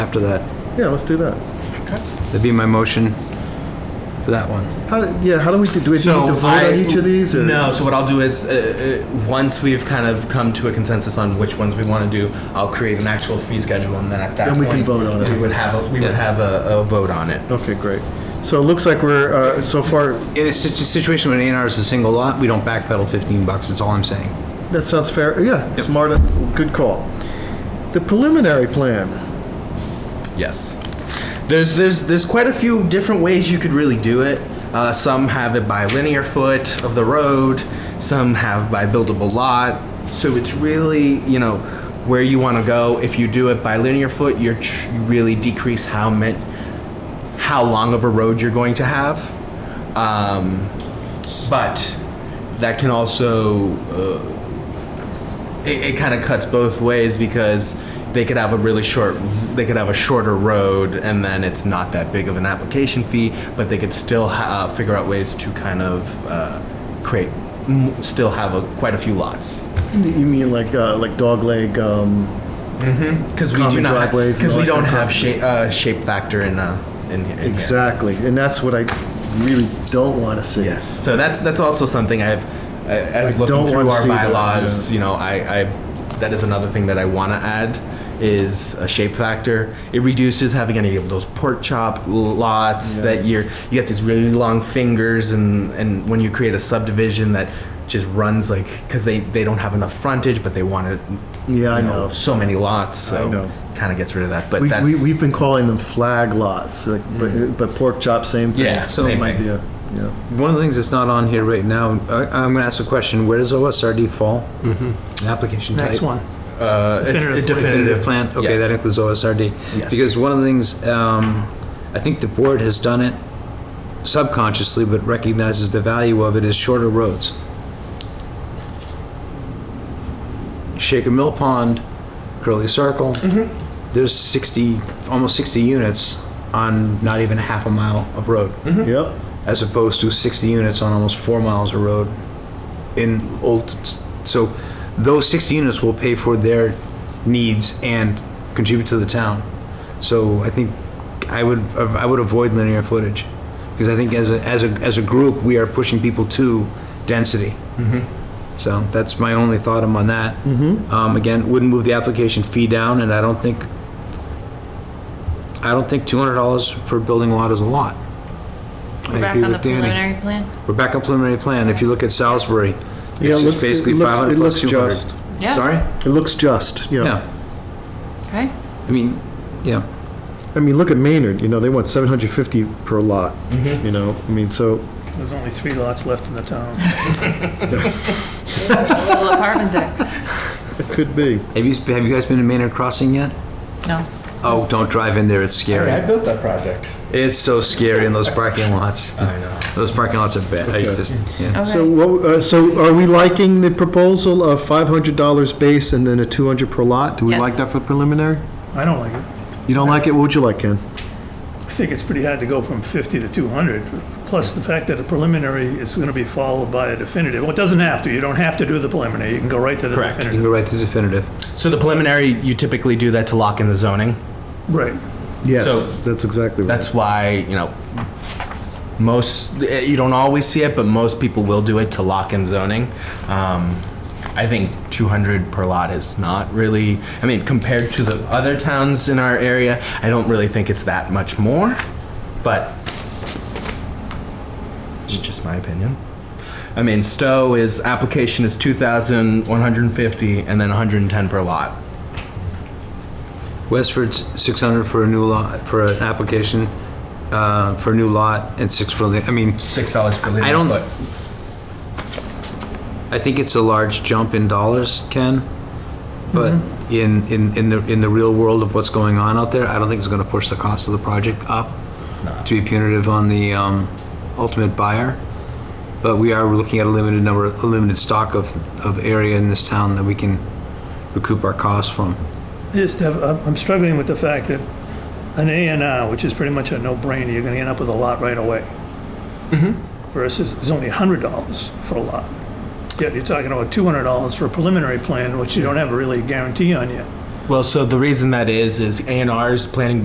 after that. Yeah, let's do that. That'd be my motion for that one. How, yeah, how do we, do we need to vote on each of these? or- No, so what I'll do is, uh, uh, once we've kind of come to a consensus on which ones we want to do, I'll create an actual fee schedule, and then at that Then we point. can vote on it. We would have, a- we would have a, a vote on it. Okay, great. So it looks like we're, uh, so far, In a situ- situation when A&R is a single lot, we don't backpedal 15 bucks, that's all I'm saying. that sounds fair. Yeah, smart, good call. The preliminary plan, Yes. There's there's there's quite a few different ways you could really do it. Uh, some have it by linear foot of the road. Some have by buildable lot. So it's really you know where you want to go. If you do it by linear foot, you're tr- you really decrease how meant how long of a road you're going to have. Um, but that can also uh, it, it kind of cuts both ways because they could have a really short they could have a shorter road and then it's not that big of an application fee but they could still ha- uh, figure out ways to kind of uh, create m- still have a, quite a few lots you mean like, uh, like dogleg, um, because we do Common not driveways and because all we that don't kind of have crap. shape, uh, shape factor in uh, in, in here. exactly. And that's what I really don't want to see. Yes. So that's that's also something I've uh, as I looking don't through wanna our see that, bylaws, yeah. you know, I, I that is another thing that I want to add is a shape factor. It reduces having any of those pork chop lots that you're you get these really long fingers and and when you create a subdivision that just runs like because they they don't have enough frontage but they want to Yeah, I know. so many lots so know. kind of gets rid of that but We, that's Mm-hmm. we, we've been calling them flag lots, like, but, but pork chop, same thing. Yeah, same Same thing. idea, yeah. One of the things that's not on here right now, I, I'm gonna ask a question, where does OSRD fall? Mm-hmm. Application type? Next one. uh, it's Definitive a plan. Definitive plan, okay, Yes. that includes OSRD. Yes. Because one of the things, um, I think the board has done it subconsciously, but recognizes the value of it is shorter roads. Shaker Mill Pond, Curly Circle, Mm-hmm. there's 60, almost 60 units on not even a half a mile of Mm-hmm. road Mm-hmm. Yep, as opposed to 60 units on almost four miles of road in old, so those 60 units will pay for their needs and contribute to the town. So I think I would, I would avoid linear footage, because I think as a, as a, as a group, we are pushing people to density. So that's my only thought on that. Um, again, wouldn't move the application fee down, and I don't think, I don't think $200 per building lot is a lot. I We're back agree on the with Danny. preliminary plan? We're back on preliminary plan. If you look at Salisbury, Yeah, it's it just looks- basically it looks- 500 it plus looks 200. just. Yeah. Sorry? it looks just, yeah. Yeah. Okay. I mean, yeah. I mean, look at Maynard, you know, they want 750 per lot, you know, I mean, so, There's only three lots left in the town. Little apartment deck. it could be. Have you, have you guys been to Maynard Crossing yet? No. Oh, don't drive in there. It's scary. built that project It's so scary in those parking lots. I know Those parking lots are bad. I used to, yeah. So, Okay. what, uh, so are we liking the proposal of $500 base and then a 200 per lot? Do we Yes. like that for preliminary? I don't like it. You don't like it, what would you like, Ken? I think it's pretty hard to go from 50 to 200, plus the fact that a preliminary is going to be followed by a definitive. Well, it doesn't have to, you don't have to do the preliminary, you can go right to the Correct. You can definitive. go right to definitive. So the preliminary, you typically do that to lock in the zoning. Right. Yes, So- that's exactly right. That's why, you know, most, eh, you don't always see it, but most people will do it to lock in zoning. Um, I think 200 per lot is not really, I mean, compared to the other towns in our area, I don't really think it's that much more, but it's just my opinion. I mean, Stowe is, application is 2,150 and then 110 per lot. Westford's 600 for a new lot, for an application, uh, for a new lot and six for the, I mean, $6 per linear I don't- foot. I think it's a large jump in dollars, Ken, but in, in, in the, in the real world of what's going on out there, I don't think it's gonna push the cost of the project up not. to be punitive on the, um, ultimate buyer. But we are looking at a limited number, a limited stock of, of area in this town that we can recoup our costs from. I Just have, I'm I'm struggling with the fact that an A and R, which is pretty much a no-brainer, you're going to end up with a lot right away. Mm-hmm. Versus, it's only $100 for a lot. Yet you're talking about $200 for a preliminary plan, which you don't have really a guarantee on yet. Well, so the reason that is, is A and R's planning